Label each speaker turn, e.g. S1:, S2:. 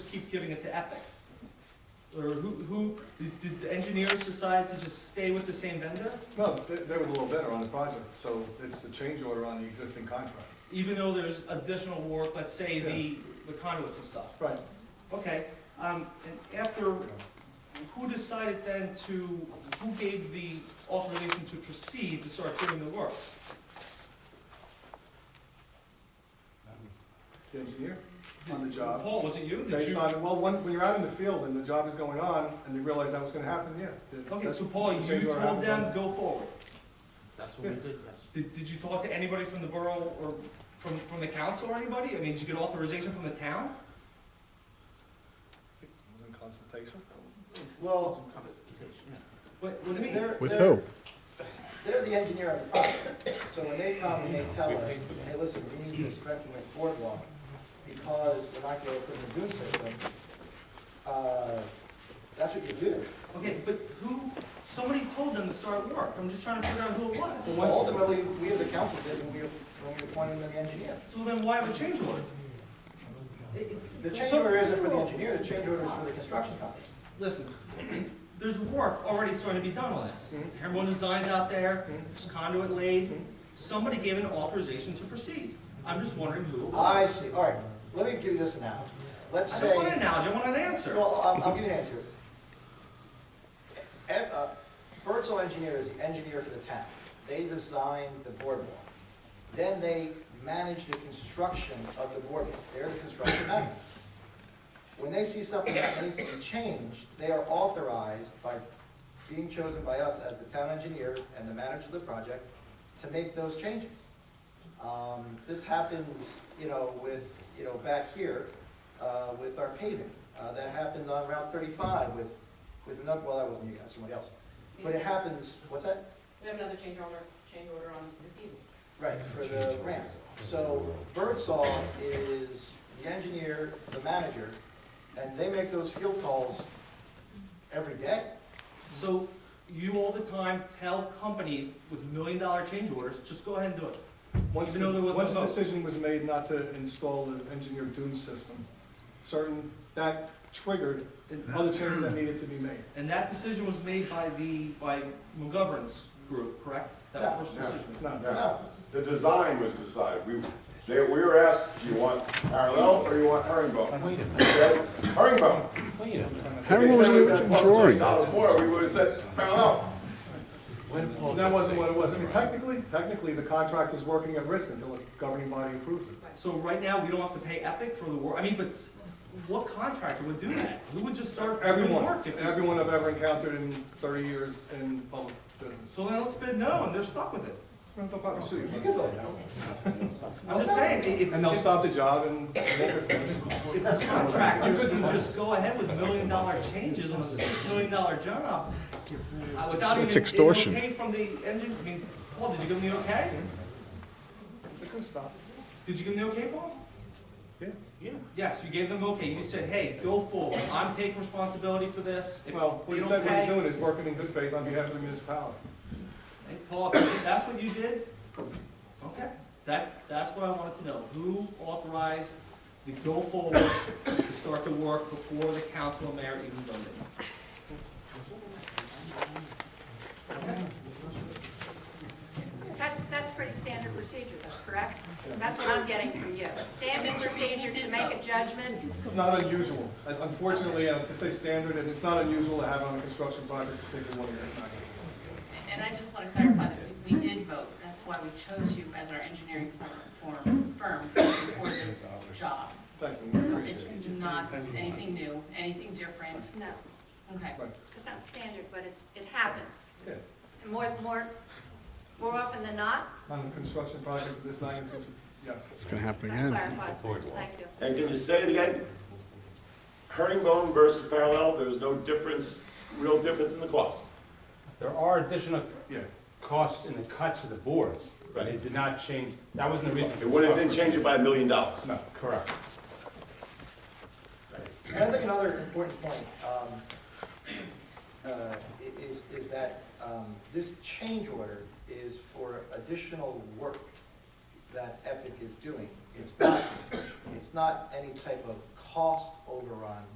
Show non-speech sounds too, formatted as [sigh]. S1: just keep giving it to Epic? Or who, who, did, did the engineers decide to just stay with the same vendor?
S2: No, they, they were a little better on the project, so it's the change order on the existing contract.
S1: Even though there's additional work, let's say the, the conduits and stuff?
S2: Right.
S1: Okay, um, and after, who decided then to, who gave the authorization to proceed to start doing the work?
S2: The engineer on the job.
S1: Paul, was it you? Did
S2: Based
S1: you-
S2: on, well, when, when you're out in the field and the job is going on, and you realize that was gonna happen, yeah. that-
S1: Okay,
S2: that's-
S1: so Paul,
S2: the
S1: you
S2: change order
S1: told
S2: happens on
S1: them, go forward.
S3: That's what we did, yes.
S1: Did, did you talk to anybody from the borough or from, from the council or anybody? I mean, did you get authorization from the town?
S2: that. It was in consultation.
S4: Well,
S1: What, what do you mean?
S4: they're,
S5: With
S4: they're-
S5: who?
S4: They're the engineer of the project, so when they come and they tell us, hey, listen, we need this Breckenridge boardwalk, because we're not gonna put in a dune system, uh, that's what you do.
S1: Okay, but who, somebody told them to start work. I'm just trying to figure out who it
S4: So
S1: was.
S4: ultimately, we as a council did, when we, when we appointed them the engineer.
S1: So then why have a change order?
S4: The change order isn't for the engineer, the change order is for the construction company.
S1: Listen, [clears throat] there's work already starting to be done on this.
S4: Mm-hmm.
S1: Everyone designs out there, there's conduit laid. Somebody gave an authorization to proceed. I'm just wondering who it was.
S4: I see, all right, let me give you this analogy. Let's
S1: I
S4: say.
S1: don't want an analogy, I want an answer.
S4: Well, I'll, I'll give you an answer. E- uh, Bertzel Engineer is the engineer for the town. They designed the boardwalk. Then they manage the construction of the boardwalk. They're the construction manager. When they see something that needs to be changed, they are authorized by being chosen by us as the town engineer and the manager of the project to make those changes. Um, This happens, you know, with, you know, back here uh, with our paving. Uh, That happened on Route 35 with, with, another- well, that wasn't you guys, somebody else. But it happens, what's that?
S6: We have another change order, change order on this evening.
S4: Right, for the ramps. So Birdsall is the engineer, the manager, and they make those field calls every day.
S1: So you all the time tell companies with million dollar change orders, just go ahead and do it.
S2: Once,
S1: Even though there was no
S2: once the
S1: vote.
S2: decision was made not to install the engineered dune system, certain, that triggered other changes that needed to be made.
S1: And that decision was made by the, by McGovern's group, correct? That was the first decision.
S2: No,
S4: No,
S7: The design was decided. We, they, we were asked, do you want parallel or you want herringbone?
S3: Wait a
S7: We said, Herringbone.
S3: minute, wait a minute.
S5: Herringbone was
S7: If
S5: in
S7: they
S5: the
S7: said
S5: original
S7: that
S5: drawing.
S7: Solid water, we would have said parallel.
S3: Wait a minute.
S2: And that wasn't what it was. I mean, technically, technically, the contract was working at risk until the governing body approved it.
S1: So right now, we don't have to pay Epic for the work, I mean, but s- what contractor would do that? Who would just start doing
S2: Everyone,
S1: work if?
S2: everyone I've ever encountered in thirty years in public business.
S1: So now let's bid no, and they're stuck with it.
S2: They'll probably sue
S4: you
S2: you.
S4: can vote no.
S1: I'm just saying, i- if,
S2: And they'll
S1: if
S2: stop the job and make it finish.
S1: contractors can just go ahead with million dollar changes on a six million dollar job, uh, without even.
S5: That's
S1: getting
S5: extortion.
S1: Okay from the engine, I mean, Paul, did you give them the okay?
S2: They couldn't stop it.
S1: Did you give them the okay, Paul?
S2: Yeah.
S1: Yeah. Yes, you gave them okay, you said, hey, go forward, I'm taking responsibility for this. If
S2: Well,
S1: they
S2: what he
S1: don't
S2: said what he's
S1: pay-
S2: doing is working in good faith on behalf of the municipality.
S1: Hey, Paul, if that's what you did? Okay, that, that's what I wanted to know. Who authorized the go forward to start the work before the council and mayor even voted?
S8: That's, that's pretty standard procedure, though, correct? That's what I'm getting from you. Standard procedure to make a judgment,
S2: It's not unusual. Un- Unfortunately, uh, to say standard, and it's not unusual to have on a construction project, particularly one that's not gonna be.
S9: And I just want to clarify that we we did vote, that's why we chose you as our engineering firm, firm- firm for this job.
S2: Thank you, we
S9: So
S2: appreciate
S9: it's
S2: it.
S9: not anything new, anything different,
S8: no,
S9: okay.
S8: it's not standard, but it's, it happens.
S2: Yeah.
S8: And more, more, more often than not,
S2: On a construction project of this magnitude, yes.
S5: It's gonna happen
S8: that
S5: again.
S8: clarifies things, thank you.
S7: And can you say it again? Herringbone versus parallel, there was no difference, real difference in the cost.
S3: There are additional
S2: Yeah.
S3: costs in the cuts of the boards, but it did not change, that wasn't the reason.
S7: It wouldn't have been changed by a million dollars.
S3: No, correct.
S4: And I think another important point um, uh, i- is, is that um, this change order is for additional work that Epic is doing. It's not, it's not any type of cost overrun